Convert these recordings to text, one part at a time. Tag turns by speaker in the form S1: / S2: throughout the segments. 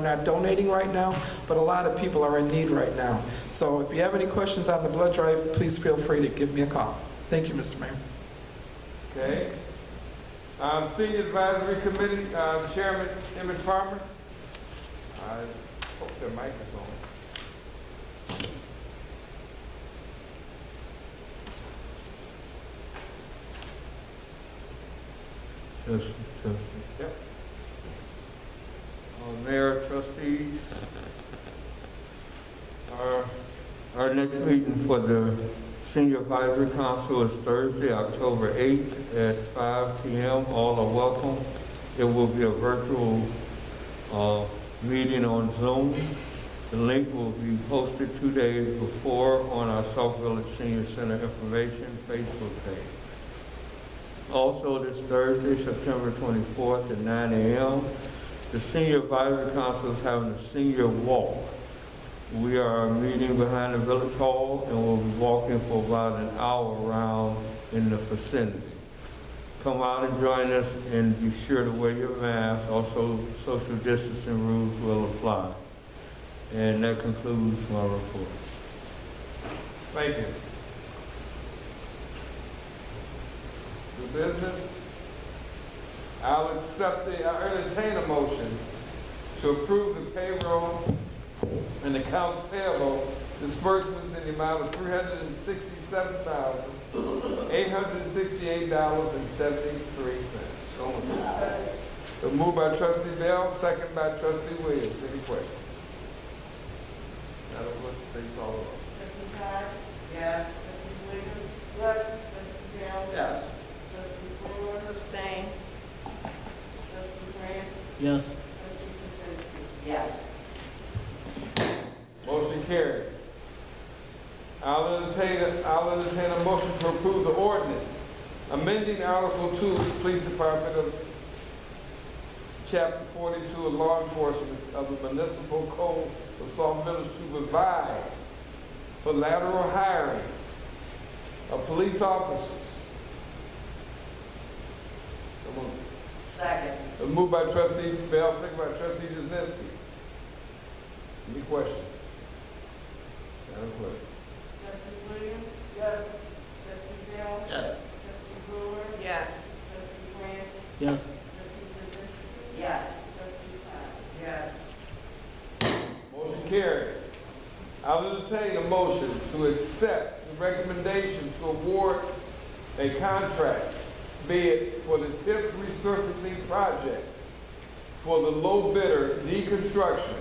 S1: not donating right now, but a lot of people are in need right now. So if you have any questions on the blood drive, please feel free to give me a call. Thank you, Mr. Mayor.
S2: Okay. Um, Senior Advisory Committee, um, Chairman Emmett Farmer. I hope their mic is on.
S3: Yes, yes.
S2: Uh, Mayor, trustees, our, our next meeting for the Senior Advisory Council is Thursday, October 8th at 5 PM. All are welcome. It will be a virtual uh, meeting on Zoom. The link will be posted two days before on our South Village Senior Center Information Facebook page. Also, this Thursday, September 24th at 9 AM, the Senior Advisory Council is having a senior walk. We are meeting behind the Village Hall and we'll be walking for about an hour around in the vicinity. Come out and join us and be sure to wear your mask. Also, social distancing rules will apply. And that concludes my report. Thank you. The business? I'll accept the, I entertain a motion to approve the payroll and accounts payable disbursements in the amount of three hundred and sixty-seven thousand, eight hundred and sixty-eight dollars and seventy-three cents. So moved. Moved by trustee Bell, second by trustee Williams. Any questions? Madam Clerk, please call the roll.
S4: Trustee Todd?
S5: Yes.
S4: Trustee Williams? Yes. Trustee Bell?
S5: Yes.
S4: Trustee Brewer? Abstain. Trustee Grant?
S6: Yes.
S4: Trustee Juzinski?
S5: Yes.
S2: Motion carried. I'll entertain, a- I'll entertain a motion to approve the ordinance, amending Article Two, of the Police Department of Chapter Forty-two of Law Enforcement of the Municipal Code of Salt Village to provide for lateral hiring of police officers. So moved.
S5: Second.
S2: Uh, Moved by trustee Bell, second by trustee Jazinski. Any questions? Madam Clerk.
S4: Trustee Williams? Yes. Trustee Bell?
S5: Yes.
S4: Trustee Brewer?
S5: Yes.
S4: Trustee Grant?
S6: Yes.
S4: Trustee Juzinski?
S5: Yes.
S4: Trustee Todd?
S5: Yes.
S2: Motion carried. I'll entertain a motion to accept the recommendation to award a contract bid for the TIF resurfacing project for the low bidder deconstruction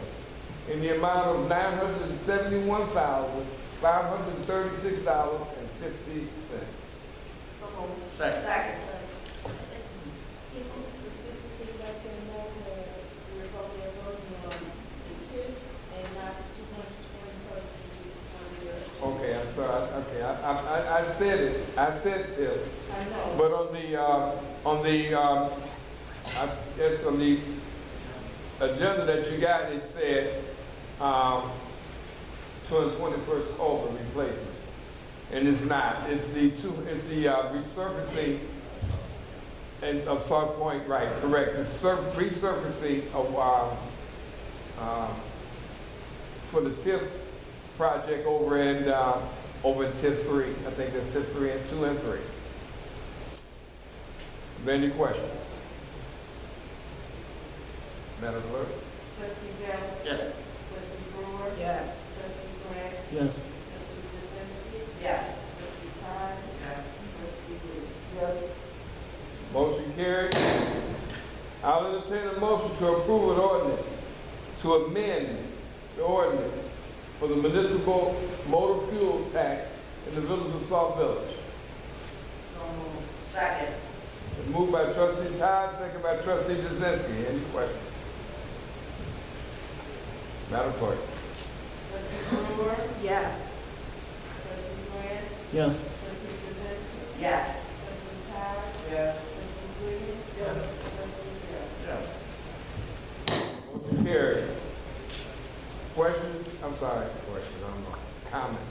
S2: in the amount of nine hundred and seventy-one thousand, five hundred and thirty-six dollars and fifty cents.
S5: Second.
S4: Second.
S7: people specifically let them know that we're voting on the TIF and not the two hundred twenty person is on your.
S2: Okay, I'm sorry, I- okay, I, I, I- I said it, I said TIF,
S7: I know,
S2: but on the, uh, on the, um, I guess on the agenda that you got, it said, um, two hundred twenty-first culvert replacement. And it's not, it's the two, it's the, uh, resurfacing and of Salt Point, right, correct, the sur- resurfacing of, um, um, for the TIF project over in, uh, over in TIF three. I think that's TIF three and two and three. Any questions? Madam Clerk?
S4: Trustee Bell?
S5: Yes.
S4: Trustee Brewer?
S5: Yes.
S4: Trustee Grant?
S6: Yes.
S4: Trustee Juzinski?
S5: Yes.
S4: Trustee Todd?
S5: Yes.
S4: Trustee Williams? Yes.
S2: Motion carried. I'll entertain a motion to approve an ordinance to amend the ordinance for the municipal motor fuel tax in the village of South Village.
S5: Second.
S2: Moved by trustee Todd, second by trustee Jazinski. Any questions? Madam Clerk?
S4: Trustee Brewer?
S5: Yes.
S4: Trustee Grant?
S6: Yes.
S4: Trustee Juzinski?
S5: Yes.
S4: Trustee Todd?
S5: Yes.
S4: Trustee Williams? Yes. Trustee Bell?
S5: Yes.
S2: Motion carried. Questions? I'm sorry, questions, I'm wrong. Comments?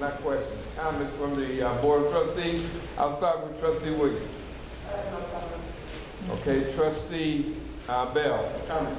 S2: Not questions, comments from the uh, Board of Trustees. I'll start with trustee Williams. Okay, trustee uh, Bell.
S5: Comment.